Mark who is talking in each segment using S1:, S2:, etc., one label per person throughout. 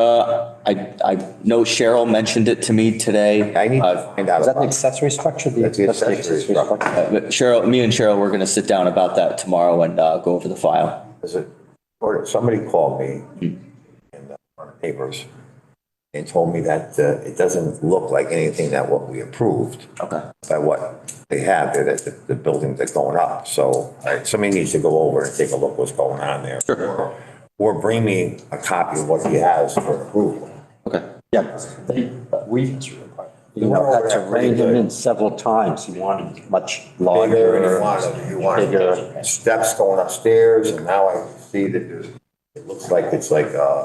S1: Uh, I, I know Cheryl mentioned it to me today.
S2: I need
S1: Uh,
S2: to find out.
S3: Is that an
S2: about-
S3: accessory structure? The
S2: That's the
S3: accessory
S2: accessory
S3: structure.
S1: uh, Cheryl, me and Cheryl, we're going to sit down about that tomorrow and uh, go over the file.
S2: Is it, or somebody called me in the papers and told me that uh, it doesn't look like anything that what we approved
S1: Okay.
S2: by what they have, there, that the, the buildings are going up. So I- somebody needs to go over and take a look what's going on there. Or- Or bring me a copy of what he has for approval.
S1: Okay.
S4: Yeah, they, we, you know,
S2: over
S4: had to
S2: that pretty
S4: rein him
S2: good.
S4: in several times. He wanted much
S2: Bigger, and you
S4: larger.
S2: want, you want steps going upstairs, and now I see that there's, it looks like it's like, uh,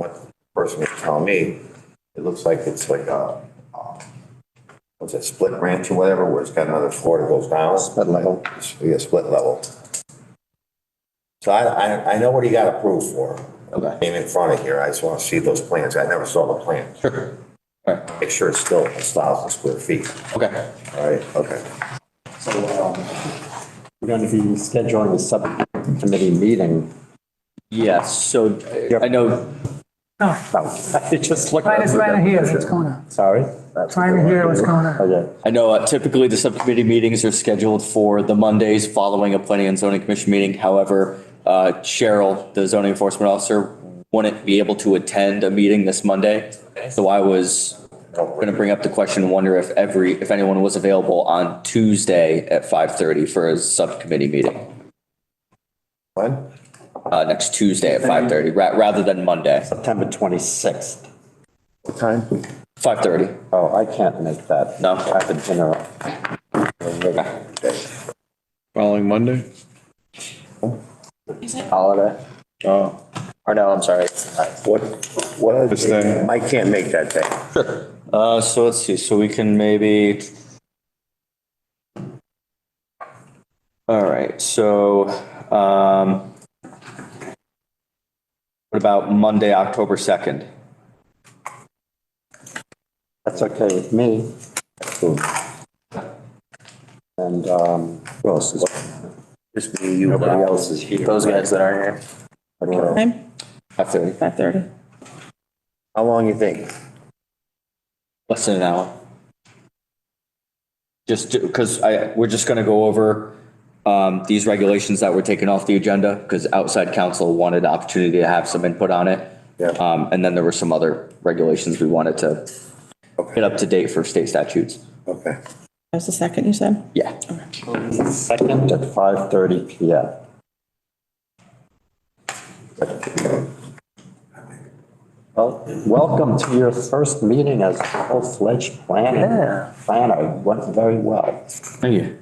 S2: what the person was telling me, it looks like it's like a, uh, what's it, split ranch or whatever, where it's got another floor that goes down. Split level. Yeah, split level. So I, I, I know what he got approved for.
S1: Okay.
S2: Came in front of here, I just want to see those plans, I never saw the plans.
S1: Sure. All right.
S2: Make sure it's still a thousand square feet,
S1: Okay.
S2: all right, okay.
S4: So, um, We're going to be scheduling a subcommittee meeting.
S1: Yes, so uh, I know,
S4: Oh, I just looked.
S5: Trying to, trying to hear what's going on,
S4: Sorry?
S5: trying to hear what's going on.
S4: Okay.
S1: I know uh, typically the subcommittee meetings are scheduled for the Mondays following a planning and zoning commission meeting. However, uh, Cheryl, the zoning enforcement officer, wouldn't be able to attend a meeting this Monday. So I was going to bring up the question, and wonder if every, if anyone was available on Tuesday at 5:30 for a subcommittee meeting,
S2: Glenn?
S1: uh, next Tuesday at 5:30, ra- rather than Monday,
S4: September 26th.
S1: 5:30.
S4: Oh, I can't make that.
S1: No.
S4: I have a dinner.
S6: Following Monday?
S4: Holiday.
S6: Oh,
S4: Or no, I'm sorry.
S2: What, what other
S6: This thing.
S2: day? I can't make that day.
S1: Uh, so let's see, so we can maybe. All right, so, um. What about Monday, October second?
S4: That's okay with me. And, um, who else is?
S2: Just me, you,
S4: Nobody
S2: Bob.
S4: else is here.
S7: uh, Those guys that aren't here.
S4: Okay.
S7: Time,
S1: Five thirty,
S7: five thirty.
S2: How long you think?
S1: less than an hour. Just because I, we're just gonna go over, um, these regulations that were taken off the agenda because outside counsel wanted the opportunity to have some input on it.
S2: Yeah.
S1: Um, and then there were some other regulations we wanted to get up to date for state statutes.
S2: Okay.
S7: That was the second you said?
S1: Yeah.
S4: Second at 5:30 PM. Well, welcome to your first meeting as a full-fledged planner. Planner It went very well.
S1: Thank you.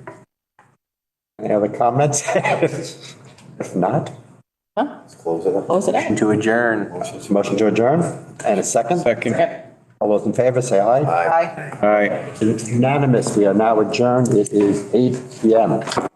S4: Any other comments? If not,
S2: Close it up.
S7: Close it up.
S2: To adjourn.
S4: motion to adjourn and a second.
S6: second.
S4: All those in favor, say aye.
S2: Aye.
S6: All right.
S4: Unanimous, we are now adjourned. It is 8 PM.